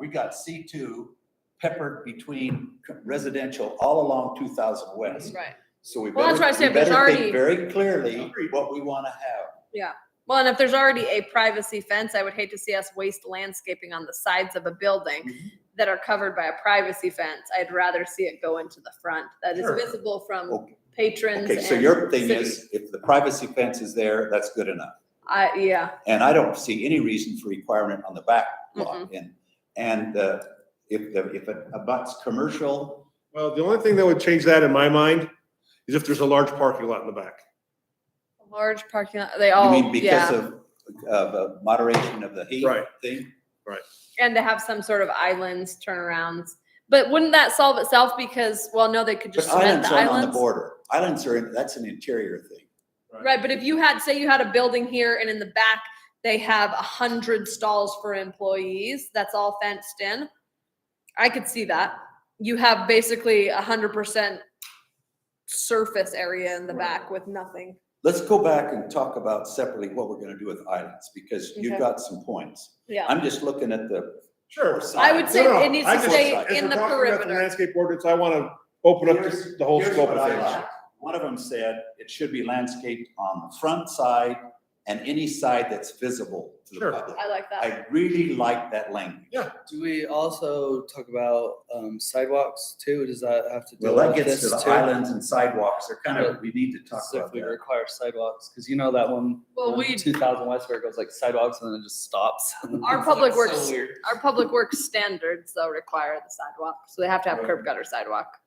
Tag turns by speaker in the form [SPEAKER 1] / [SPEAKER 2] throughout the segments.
[SPEAKER 1] we got C two peppered between residential all along two thousand west.
[SPEAKER 2] Right.
[SPEAKER 1] So we
[SPEAKER 2] Well,
[SPEAKER 1] better,
[SPEAKER 2] that's
[SPEAKER 1] we
[SPEAKER 2] what I said,
[SPEAKER 1] better
[SPEAKER 2] there's already-
[SPEAKER 1] think very clearly what we wanna have.
[SPEAKER 2] Well, and if there's already a privacy fence, I would hate to see us waste landscaping on the sides of a building
[SPEAKER 1] Mm-hmm.
[SPEAKER 2] that are covered by a privacy fence. I'd rather see it go into the front that is
[SPEAKER 1] Sure.
[SPEAKER 2] visible from
[SPEAKER 1] Okay.
[SPEAKER 2] patrons.
[SPEAKER 1] Okay, so
[SPEAKER 2] and
[SPEAKER 1] your thing
[SPEAKER 2] city.
[SPEAKER 1] is, if the privacy fence is there, that's good enough.
[SPEAKER 2] I, yeah,
[SPEAKER 1] And I don't see any reason for requirement on the back lot. And, and uh, if, the if it abuts commercial,
[SPEAKER 3] Well, the only thing that would change that in my mind is if there's a large parking lot in the back.
[SPEAKER 2] large parking lot, they
[SPEAKER 1] you
[SPEAKER 2] all,
[SPEAKER 1] mean because
[SPEAKER 2] Oh, yeah.
[SPEAKER 1] of, of uh, moderation of the heat
[SPEAKER 3] Right.
[SPEAKER 1] thing?
[SPEAKER 2] And to have some sort of islands, turnarounds. But wouldn't that solve itself? Because, well, no, they could
[SPEAKER 1] But
[SPEAKER 2] just cement
[SPEAKER 1] islands
[SPEAKER 2] the
[SPEAKER 1] aren't on the
[SPEAKER 2] islands.
[SPEAKER 1] border. Islands are, in- that's an interior thing.
[SPEAKER 2] Right, but if you had, say you had a building here and in the back, they have a hundred stalls for employees, that's all fenced in. I could see that. You have basically a hundred percent surface area in the back with nothing.
[SPEAKER 1] Let's go back and talk about separately what we're gonna do with islands, because you've
[SPEAKER 2] Okay.
[SPEAKER 1] got some points.
[SPEAKER 2] Yeah,
[SPEAKER 1] I'm just looking at the.
[SPEAKER 3] Sure.
[SPEAKER 2] I would say
[SPEAKER 3] No, no,
[SPEAKER 2] it needs
[SPEAKER 3] I
[SPEAKER 2] to
[SPEAKER 3] just-
[SPEAKER 2] stay
[SPEAKER 3] as
[SPEAKER 2] in
[SPEAKER 3] we're
[SPEAKER 2] the
[SPEAKER 3] talking about the
[SPEAKER 2] perimeter.
[SPEAKER 3] Landscape ordinance, I want to open up
[SPEAKER 1] Here's-
[SPEAKER 3] the whole
[SPEAKER 1] here's
[SPEAKER 3] scope
[SPEAKER 1] what
[SPEAKER 3] of
[SPEAKER 1] I
[SPEAKER 3] things.
[SPEAKER 1] like. One of them said it should be landscaped on the front side and any side that's visible to the
[SPEAKER 3] Sure.
[SPEAKER 1] public.
[SPEAKER 2] I like that.
[SPEAKER 1] I really like that language.
[SPEAKER 4] Do we also talk about um, sidewalks too? Does that have to do
[SPEAKER 1] Well, that
[SPEAKER 4] with
[SPEAKER 1] gets to
[SPEAKER 4] this
[SPEAKER 1] the
[SPEAKER 4] too?
[SPEAKER 1] islands and sidewalks, they're kind of, we need to talk about
[SPEAKER 4] Specifically
[SPEAKER 1] that.
[SPEAKER 4] require sidewalks because you know that one,
[SPEAKER 2] Well, we-
[SPEAKER 4] two thousand west where it goes like sidewalks and then it just stops.
[SPEAKER 2] Our
[SPEAKER 4] It's
[SPEAKER 2] public
[SPEAKER 4] so
[SPEAKER 2] works-
[SPEAKER 4] weird.
[SPEAKER 2] Our public works standards though require the sidewalk, so they have to have curb gutter sidewalk.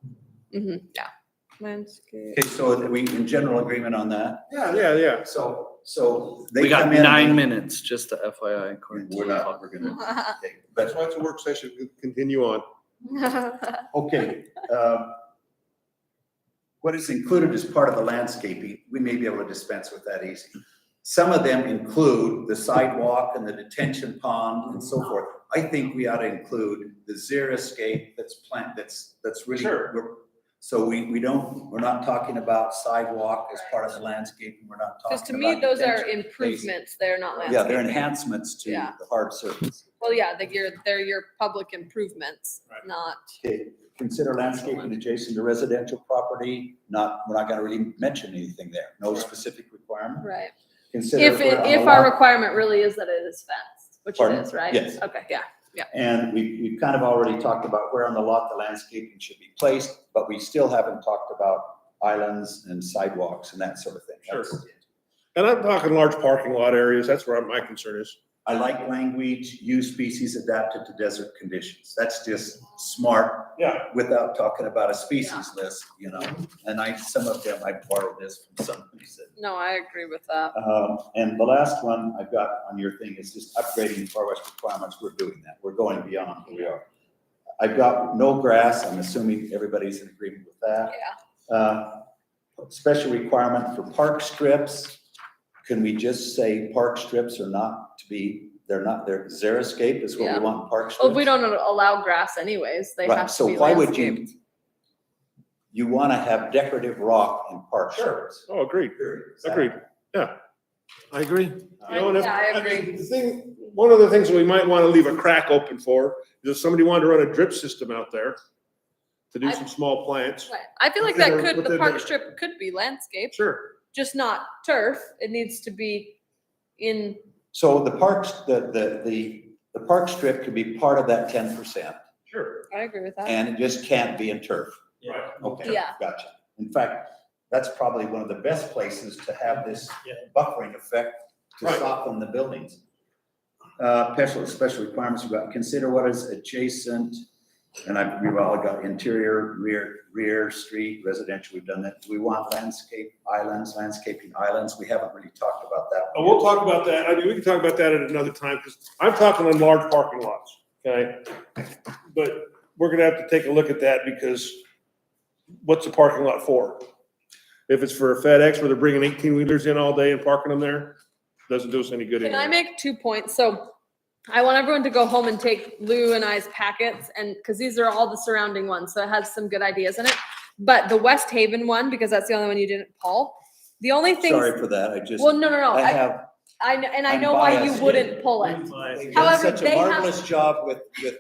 [SPEAKER 2] hmm yeah. Landscape.
[SPEAKER 1] Okay, so are we in general agreement on that?
[SPEAKER 3] Yeah, yeah, yeah.
[SPEAKER 1] So, so. they
[SPEAKER 4] We got
[SPEAKER 1] come in-
[SPEAKER 4] nine minutes, just to FYI. according to
[SPEAKER 1] We're
[SPEAKER 4] the
[SPEAKER 1] not,
[SPEAKER 4] public.
[SPEAKER 1] we're gonna, okay, but,
[SPEAKER 3] That's why it's a work session. We can Continue on.
[SPEAKER 1] okay, um, what is included as part of the landscaping, we may be able to dispense with that easy. Some of them include the sidewalk and the detention pond and so forth. I think we ought to include the xeriscape that's plant, that's, that's really.
[SPEAKER 3] Sure.
[SPEAKER 1] we're- So we, we don't, we're not talking about sidewalk as part of the landscaping, we're not talking about.
[SPEAKER 2] Cause to me, those are
[SPEAKER 1] detention.
[SPEAKER 2] improvements, they're not
[SPEAKER 1] Yeah, they're
[SPEAKER 2] landscaping.
[SPEAKER 1] enhancements to
[SPEAKER 2] Yeah.
[SPEAKER 1] the hard surface.
[SPEAKER 2] Well, yeah, they're your, they're your public improvements,
[SPEAKER 3] Right.
[SPEAKER 2] not,
[SPEAKER 1] Okay, consider landscaping adjacent to residential property, not, we're not gonna really mention anything there, no specific requirement.
[SPEAKER 2] right.
[SPEAKER 1] Consider
[SPEAKER 2] If,
[SPEAKER 1] where
[SPEAKER 2] it-
[SPEAKER 1] on
[SPEAKER 2] if
[SPEAKER 1] the
[SPEAKER 2] our
[SPEAKER 1] lot-
[SPEAKER 2] requirement really is that it is fenced, which
[SPEAKER 1] Pardon?
[SPEAKER 2] it is, right?
[SPEAKER 1] Yes.
[SPEAKER 2] Okay, yeah.
[SPEAKER 1] And we, we've kind of already talked about where on the lot the landscaping should be placed, but we still haven't talked about islands and sidewalks and that sort of thing.
[SPEAKER 3] Sure.
[SPEAKER 1] That's it.
[SPEAKER 3] And I'm talking large parking lot areas. That's where my concern is.
[SPEAKER 1] I like language, use species adapted to desert conditions. That's just smart
[SPEAKER 3] Yeah.
[SPEAKER 1] without talking about a species list, you know? And I, some of them, I borrowed this from somebody said.
[SPEAKER 2] No, I agree with that.
[SPEAKER 1] Um, and the last one I've got on your thing is just upgrading Far West requirements. We're doing that. We're going beyond where we are. I've got no grass. I'm assuming everybody's in agreement with
[SPEAKER 2] Yeah.
[SPEAKER 1] that. Uh, special requirement for park strips. Can we just say park strips are not to be, they're not, they're xeriscape is what
[SPEAKER 2] Yeah.
[SPEAKER 1] we want, park strips?
[SPEAKER 2] Well, we don't allow grass anyways. They
[SPEAKER 1] Right,
[SPEAKER 2] have to
[SPEAKER 1] so
[SPEAKER 2] be
[SPEAKER 1] why would you-
[SPEAKER 2] landscaped.
[SPEAKER 1] You want to have decorative rock in park strips.
[SPEAKER 3] Oh, agreed.
[SPEAKER 1] Period. Is that-
[SPEAKER 3] Agreed. Yeah. I agree. You know, and if-
[SPEAKER 2] Yeah, I
[SPEAKER 3] mean,
[SPEAKER 2] agree.
[SPEAKER 3] The thing, one of the things that we might want to leave a crack open for is if somebody wanted to run a drip system out there to do
[SPEAKER 2] I-
[SPEAKER 3] some small plants.
[SPEAKER 2] Right. I feel like that
[SPEAKER 3] Within our-
[SPEAKER 2] could, the
[SPEAKER 3] within
[SPEAKER 2] park
[SPEAKER 3] our-
[SPEAKER 2] strip could be landscaped,
[SPEAKER 3] Sure.
[SPEAKER 2] just not turf. It needs to be in,
[SPEAKER 1] So the parks, the, the, the, the park strip could be part of that ten percent.
[SPEAKER 3] Sure.
[SPEAKER 2] I agree with that.
[SPEAKER 1] And it just can't be in turf.
[SPEAKER 3] Right.
[SPEAKER 1] Okay.
[SPEAKER 2] Yeah.
[SPEAKER 1] Gotcha. In fact, that's probably one of the best places to have this buffering effect to
[SPEAKER 3] Right.
[SPEAKER 1] soften the buildings. Uh, special, special requirements about, consider what is adjacent, and I, we've all got interior, rear, rear, street, residential, we've done that. Do we want landscape islands, landscaping islands? We haven't really talked about that.
[SPEAKER 3] And we'll talk about that. I mean, we can talk about that at another time, because I'm talking on large parking lots, okay? But we're gonna have to take a look at that because what's a parking lot for? If it's for a FedEx where they're bringing eighteen wheelers in all day and parking them there, doesn't do us any good
[SPEAKER 2] Can I
[SPEAKER 3] anyway.
[SPEAKER 2] make two points? So I want everyone to go home and take Lou and I's packets and, because these are all the surrounding ones, so it has some good ideas in it. But the West Haven one, because that's the only one you didn't pull, the only thing,
[SPEAKER 1] Sorry
[SPEAKER 2] well,
[SPEAKER 1] for that. I just,
[SPEAKER 2] no, no, no,
[SPEAKER 1] I
[SPEAKER 2] I,
[SPEAKER 1] have
[SPEAKER 2] I, kn- and I
[SPEAKER 1] I'm
[SPEAKER 2] know why you
[SPEAKER 1] biased.
[SPEAKER 2] wouldn't pull it.
[SPEAKER 1] They've done
[SPEAKER 2] However,
[SPEAKER 1] such a
[SPEAKER 2] they have-
[SPEAKER 1] marvelous job with, with